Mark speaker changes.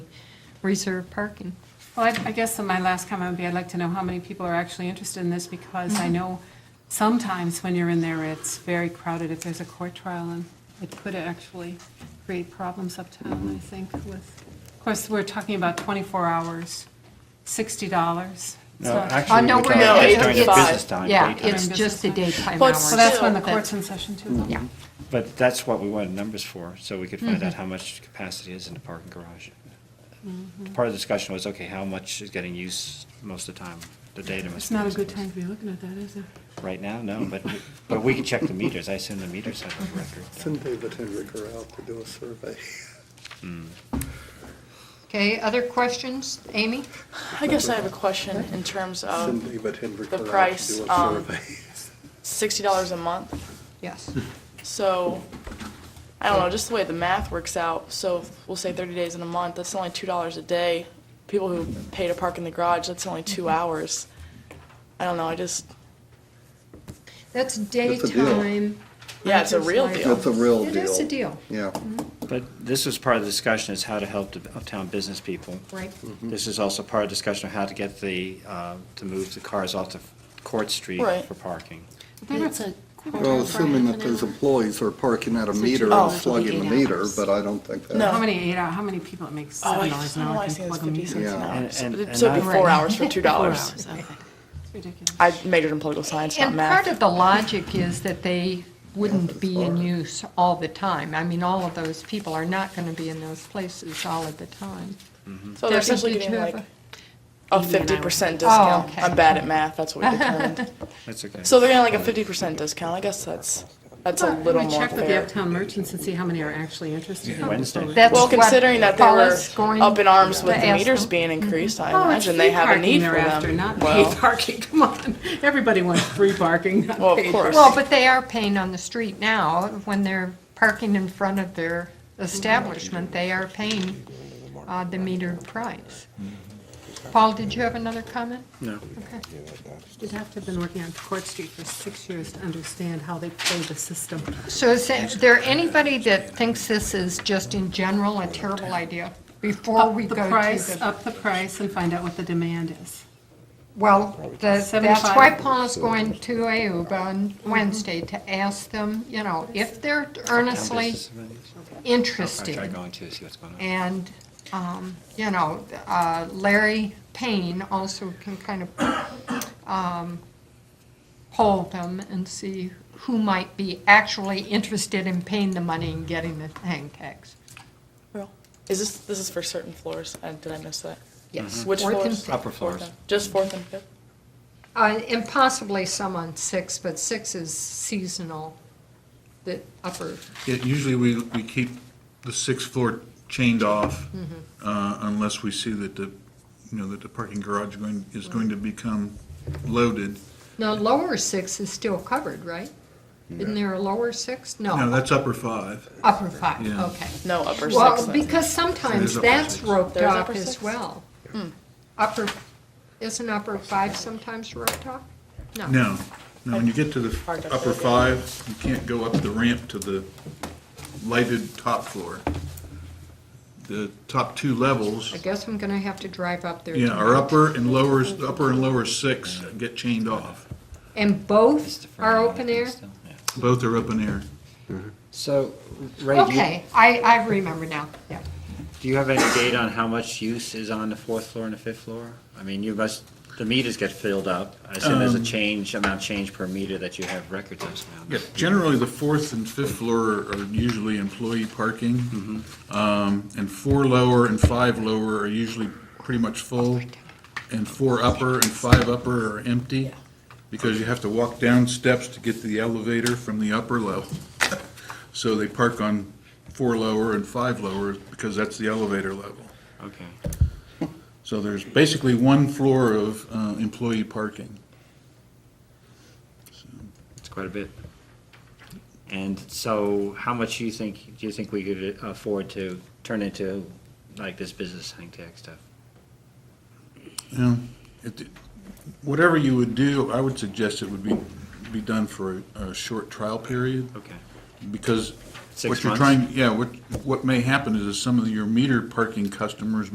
Speaker 1: reserve parking.
Speaker 2: Well, I- I guess my last comment would be, I'd like to know how many people are actually interested in this, because
Speaker 3: Mm-hmm.
Speaker 2: I know sometimes when you're in there, it's very crowded if there's a court trial, and it could actually create problems uptown, I think, with, of course, we're talking about 24 hours, $60.
Speaker 4: No,
Speaker 2: It's not-
Speaker 4: actually,
Speaker 1: Oh, no,
Speaker 4: we're
Speaker 1: we're
Speaker 4: talking
Speaker 1: not.
Speaker 4: about
Speaker 3: It's
Speaker 4: during the
Speaker 3: five.
Speaker 4: business time.
Speaker 1: Yeah,
Speaker 4: daytime.
Speaker 1: it's just the daytime
Speaker 3: Well, it's
Speaker 1: hours.
Speaker 2: Well, that's when the
Speaker 1: Still,
Speaker 2: court's in session, too.
Speaker 1: Yeah,
Speaker 4: But that's what we wanted numbers for, so we could
Speaker 2: Mm-hmm.
Speaker 4: find out how much capacity is in the parking garage.
Speaker 2: Mm-hmm.
Speaker 4: Part of the discussion was, okay, how much is getting used most of the time, the data must.
Speaker 2: It's
Speaker 4: be
Speaker 2: not a
Speaker 4: used
Speaker 2: good
Speaker 4: most.
Speaker 2: time to be looking at that, is it?
Speaker 4: Right now, no, but, but we can check the meters, I assume the meters have a record.
Speaker 5: Send David Hendricker out to do a survey.
Speaker 1: okay, other questions, Amy?
Speaker 3: I guess I have a question in terms
Speaker 5: Send
Speaker 3: of
Speaker 5: David Hendricker out
Speaker 3: Oh, price,
Speaker 5: to do a
Speaker 3: um,
Speaker 5: survey.
Speaker 3: sixty dollars a month.
Speaker 1: Yes.
Speaker 3: So, I don't know, just the way the math works out, so we'll say thirty days in a month, that's only two dollars a day. People who pay to park in the garage, that's only two hours. I don't know, I just,
Speaker 1: That's
Speaker 5: deal.
Speaker 1: daytime.
Speaker 3: yeah, it's a real
Speaker 1: Hunter's
Speaker 3: deal.
Speaker 1: Light.
Speaker 5: That's a real
Speaker 1: It
Speaker 5: deal.
Speaker 1: is a deal,
Speaker 5: Yeah.
Speaker 4: But this was part of the discussion, is how to help the uptown business people.
Speaker 1: right?
Speaker 4: This is also part of the discussion of how to get the, uh, to move the cars off of Court Street
Speaker 3: Right.
Speaker 4: for parking.
Speaker 6: Then it's a quarter of
Speaker 5: Well,
Speaker 6: an
Speaker 5: assuming
Speaker 6: hour,
Speaker 5: that
Speaker 6: half an
Speaker 5: those
Speaker 6: hour.
Speaker 5: employees are parking at a meter
Speaker 3: Oh.
Speaker 5: and slugging the
Speaker 6: Eight
Speaker 5: meter,
Speaker 6: hours.
Speaker 5: but I don't think that.
Speaker 3: No.
Speaker 2: How many eight hour, how many people it makes
Speaker 3: Oh,
Speaker 2: $7
Speaker 3: I just
Speaker 2: an
Speaker 3: don't know why
Speaker 2: hour
Speaker 3: I
Speaker 2: can
Speaker 3: say it's
Speaker 2: plug 'em
Speaker 3: fifty
Speaker 2: in?
Speaker 3: cents an
Speaker 5: Yeah.
Speaker 3: hour.
Speaker 4: And-
Speaker 3: So
Speaker 4: and-
Speaker 3: it'd
Speaker 4: and
Speaker 3: so it'd be
Speaker 4: I-
Speaker 3: four hours for two
Speaker 6: Four
Speaker 3: dollars.
Speaker 6: hours, okay.
Speaker 2: It's ridiculous.
Speaker 3: I majored in political science, not
Speaker 1: And part
Speaker 3: math.
Speaker 1: of the logic is that they wouldn't be in
Speaker 5: far.
Speaker 1: use all the time. I mean, all of those people are not going to be in those places all of the time.
Speaker 3: So they're
Speaker 1: Debbie,
Speaker 3: essentially
Speaker 1: did
Speaker 3: getting
Speaker 1: you have
Speaker 3: like
Speaker 1: a-
Speaker 3: a fifty percent
Speaker 1: Oh,
Speaker 3: discount.
Speaker 1: okay.
Speaker 3: I'm bad at math, that's what we determined.
Speaker 4: That's okay.
Speaker 3: So they're getting like a fifty percent discount. I guess that's, that's a little
Speaker 2: We
Speaker 3: more
Speaker 2: check with the
Speaker 3: fair.
Speaker 2: uptown merchants and see how many are actually interested. in it
Speaker 4: Wednesday.
Speaker 2: before we-
Speaker 1: That's
Speaker 3: Well,
Speaker 1: what
Speaker 3: considering that they were
Speaker 1: Paula's going
Speaker 3: up in arms with
Speaker 1: to
Speaker 3: the
Speaker 1: ask
Speaker 3: meters
Speaker 1: them.
Speaker 3: being increased, I
Speaker 2: Oh, it's
Speaker 3: imagine they
Speaker 2: free
Speaker 3: have a
Speaker 2: parking
Speaker 3: need for
Speaker 2: thereafter,
Speaker 3: them.
Speaker 2: Not paid
Speaker 3: Well,
Speaker 2: parking, come on. Everybody wants free parking, not
Speaker 3: Well, of
Speaker 2: paid
Speaker 3: course.
Speaker 1: Well, but they are paying on the street now. When they're parking in front of their establishment, they are paying uh, the meter price. Paul, did you have another comment?
Speaker 4: No.
Speaker 2: You'd have to have been working on Court Street for six years to understand how they play the system.
Speaker 1: So is there anybody that thinks this is just in general a terrible idea? Before we
Speaker 2: The
Speaker 1: go to
Speaker 2: price,
Speaker 1: the,
Speaker 2: up the price and find out what the demand is.
Speaker 1: well, the- that's
Speaker 2: Seventy-five. Mm-hmm.
Speaker 1: why Paula's going to AUBA on Wednesday to ask them, you know, if they're earnestly
Speaker 4: I try
Speaker 1: interested.
Speaker 4: going to see what's going on.
Speaker 1: And, um, you know, uh, Larry Payne also can kind of um, poll them and see who might be actually interested in paying the money and getting the hang tags.
Speaker 3: Is this, this is for certain floors? Uh, Did I miss that?
Speaker 1: Yes.
Speaker 3: Which
Speaker 1: Fourth and
Speaker 3: floors?
Speaker 1: fifth.
Speaker 4: Mm-hmm. Upper
Speaker 3: Fourth
Speaker 4: floors.
Speaker 3: and- Just fourth and fifth?
Speaker 1: Uh, And possibly some on six, but six is seasonal, the upper,
Speaker 7: Yeah, usually we, we keep the sixth floor chained off
Speaker 3: Mm-hmm.
Speaker 7: uh, unless we see that the, you know, that the parking garage going, is going to become loaded.
Speaker 1: no, lower six is still covered, right? Isn't there a lower six?
Speaker 7: No,
Speaker 1: No,
Speaker 7: that's upper five.
Speaker 1: upper five,
Speaker 7: Yeah.
Speaker 1: okay.
Speaker 3: No, upper six.
Speaker 1: Well,
Speaker 3: then.
Speaker 1: because sometimes
Speaker 7: There's upper
Speaker 1: that's
Speaker 7: six.
Speaker 1: roped
Speaker 3: There's
Speaker 1: off
Speaker 3: upper
Speaker 1: as
Speaker 3: six? Hmm.
Speaker 1: well. Upper, isn't upper five sometimes roped off? No.
Speaker 7: No, no, when you get to the
Speaker 3: Hard to
Speaker 7: upper
Speaker 3: build it.
Speaker 7: five, you can't go up the ramp to the lighted top floor. The top two levels,
Speaker 1: I guess I'm gonna have to drive up there.
Speaker 7: yeah, are
Speaker 1: tomorrow.
Speaker 7: upper and lower, upper and lower six get chained off.
Speaker 1: And
Speaker 4: It's
Speaker 1: both
Speaker 4: the front
Speaker 1: are
Speaker 4: end, I
Speaker 1: open
Speaker 4: think,
Speaker 1: air?
Speaker 4: still, yeah.
Speaker 7: Both are up in air.
Speaker 4: So, Ray, do you,
Speaker 1: Okay, I, I remember now, yeah.
Speaker 4: do you have any data on how much use is on the fourth floor and the fifth floor? I mean, you must, the meters get filled up. I assume there's a change, amount change per meter that you have records of now.
Speaker 7: Yeah, generally, the fourth and fifth floor are usually employee parking. Um, And four lower and five lower are usually pretty much full. And four upper and five upper are empty because you have to walk down steps to get to the elevator from the upper level. So they park on four lower and five lower because that's the elevator level.
Speaker 4: Okay.
Speaker 7: So there's basically one floor of uh, employee parking.
Speaker 4: It's quite a bit. And so, how much do you think, do you think we could uh, afford to turn into, like, this business hang tag stuff?
Speaker 7: Yeah, it, whatever you would do, I would suggest it would be, be done for a, a short trial period,
Speaker 4: Okay.
Speaker 7: because
Speaker 4: Six
Speaker 7: what you're
Speaker 4: months?
Speaker 7: trying, yeah, what, what may happen is some of your meter parking customers